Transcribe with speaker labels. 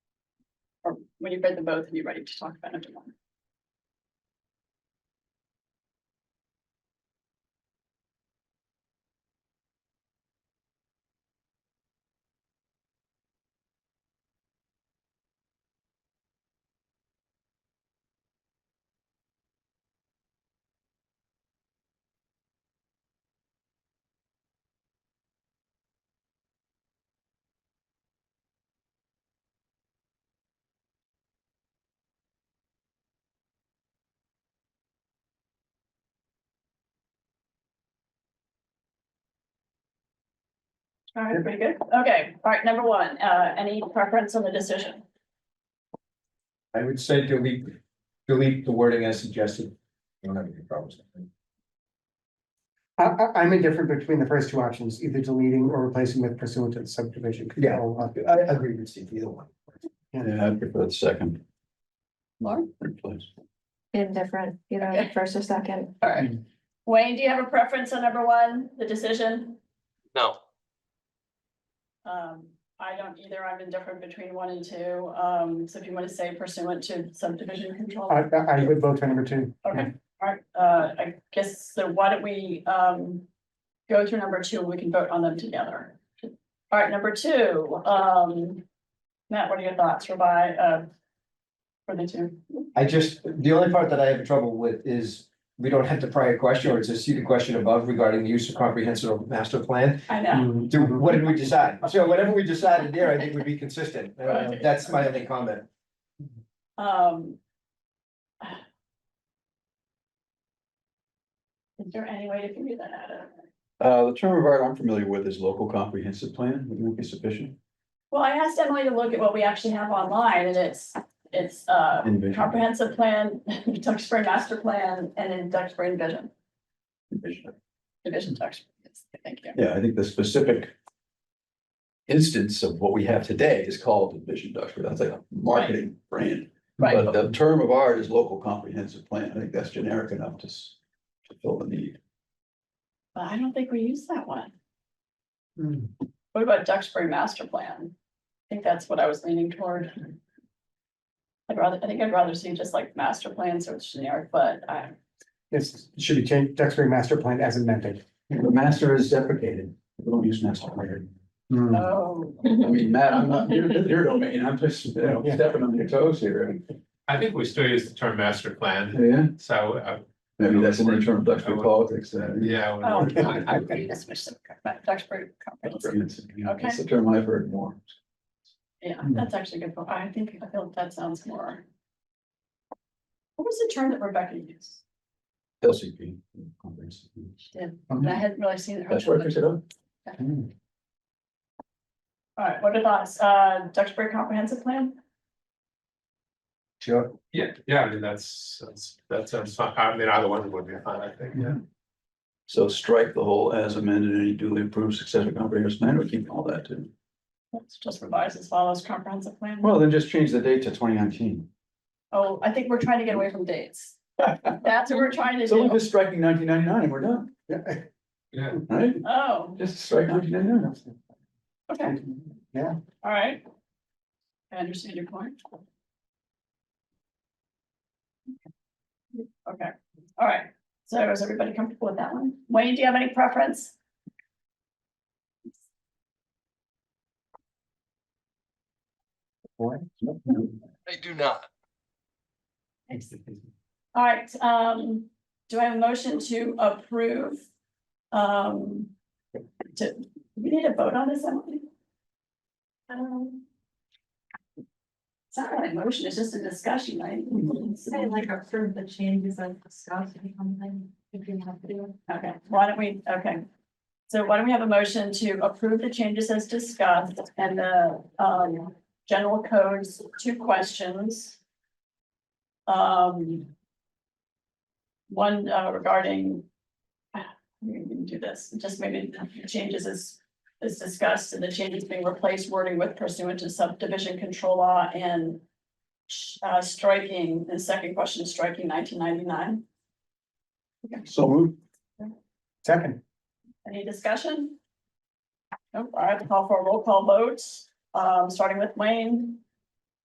Speaker 1: when you've read them both and you're ready to talk about it tomorrow. All right, pretty good. Okay, all right, number one, uh, any preference on the decision?
Speaker 2: I would say delete, delete the wording as suggested. You don't have any problems.
Speaker 3: I, I, am indifferent between the first two options, either deleting or replacing with pursuant to the subdivision. control.
Speaker 2: I agree with Steve, either one.
Speaker 4: Yeah, I prefer the second.
Speaker 1: Lauren?
Speaker 4: Please.
Speaker 5: Indifferent, you know,
Speaker 1: Okay.
Speaker 5: first or second.
Speaker 1: All right. Wayne, do you have a preference on number one, the decision?
Speaker 6: No,
Speaker 1: Um, I don't either. I'm indifferent between one and two. Um, so if you want to say pursuant to subdivision control.
Speaker 3: I, I I would vote for number two.
Speaker 1: Okay, all right, uh, I guess, so why don't we, um, go through number two, and we can vote on them together. All right, number two, um, Matt, what are your thoughts for by, uh, for the two?
Speaker 2: I just, the only part that I have trouble with is we don't have the prior question or it's a seated question above regarding the use of comprehensive master plan.
Speaker 1: I know,
Speaker 2: Do, what did we decide? So whatever we decided there, I think would be consistent. Uh, That's my only comment.
Speaker 1: um. Is there any way to figure that out?
Speaker 4: Uh, the term of art I'm familiar with is local comprehensive plan, would that be sufficient?
Speaker 1: Well, I asked Emily to look at what we actually have online and it's, it's, uh,
Speaker 4: Envision.
Speaker 1: comprehensive plan, Duxbury master plan, and then Duxbury vision,
Speaker 4: Envision.
Speaker 1: division Duxbury. Yes, Thank you.
Speaker 4: Yeah, I think the specific instance of what we have today is called Envision Duxbury, that's like a marketing brand.
Speaker 1: Right,
Speaker 4: But the term of art is local comprehensive plan, I think that's generic enough to s- to fill the need.
Speaker 1: but I don't think we use that one.
Speaker 3: Hmm.
Speaker 1: What about Duxbury master plan? I think that's what I was leaning toward. I'd rather, I think I'd rather see just like master plan, so it's generic, but I,
Speaker 3: It's, it should be changed, Duxbury master plan as amended.
Speaker 4: The master is deprecated, we don't use master plan.
Speaker 1: oh,
Speaker 4: I mean, Matt, I'm not, your, your domain, I'm just, you know, stepping on your toes here.
Speaker 7: I think we still use the term master plan,
Speaker 4: Yeah,
Speaker 7: so, uh,
Speaker 4: maybe that's an internal Duxbury politics then.
Speaker 7: yeah.
Speaker 1: oh,
Speaker 7: when-
Speaker 1: I I agree, that's much simpler, but Duxbury comprehensive.
Speaker 4: That's the term I've heard more.
Speaker 1: Yeah, that's actually good. for- I think, I feel that sounds more. What was the term that Rebecca used?
Speaker 4: LCP.
Speaker 1: She did. And I hadn't really seen her.
Speaker 4: That's where I picked it up.
Speaker 1: All right, what are thoughts? Uh, Duxbury Comprehensive Plan?
Speaker 2: Sure.
Speaker 7: Yeah, yeah, I mean, that's, that's, that sounds fine. I mean, either one would be fine, I think, yeah.
Speaker 4: So strike the whole as amended and duly approved successor comprehensive plan, we keep all that too.
Speaker 1: Let's just revise as follows comprehensive plan.
Speaker 4: Well, then just change the date to twenty nineteen.
Speaker 1: Oh, I think we're trying to get away from dates. That's what we're trying to
Speaker 4: So we're
Speaker 1: do.
Speaker 4: just striking nineteen ninety-nine and we're done,
Speaker 3: Yeah,
Speaker 7: Yeah,
Speaker 4: right?
Speaker 1: Oh,
Speaker 4: Just strike nineteen ninety-nine.
Speaker 1: okay,
Speaker 3: yeah.
Speaker 1: all right. I understand your point. Okay, all right. So is everybody comfortable with that one? Wayne, do you have any preference?
Speaker 6: I do not.
Speaker 1: All right, um, do I have a motion to approve? Um, to, we need a vote on this, Emily? Um, It's not really a motion, it's just a discussion, right?
Speaker 8: Say like approve the changes I've discussed or something, if you have to.
Speaker 1: Okay, why don't we, okay. So why don't we have a motion to approve the changes as discussed and the, um, general codes, two questions. Um. One uh, regarding. ah, We can do this, just maybe the changes as, as discussed and the changes being replaced wording with pursuant to subdivision control law and. Uh, striking, the second question, striking nineteen ninety-nine.
Speaker 4: So move.
Speaker 3: Second,
Speaker 1: Any discussion? Nope, all right, call for a roll call vote, um, starting with Wayne,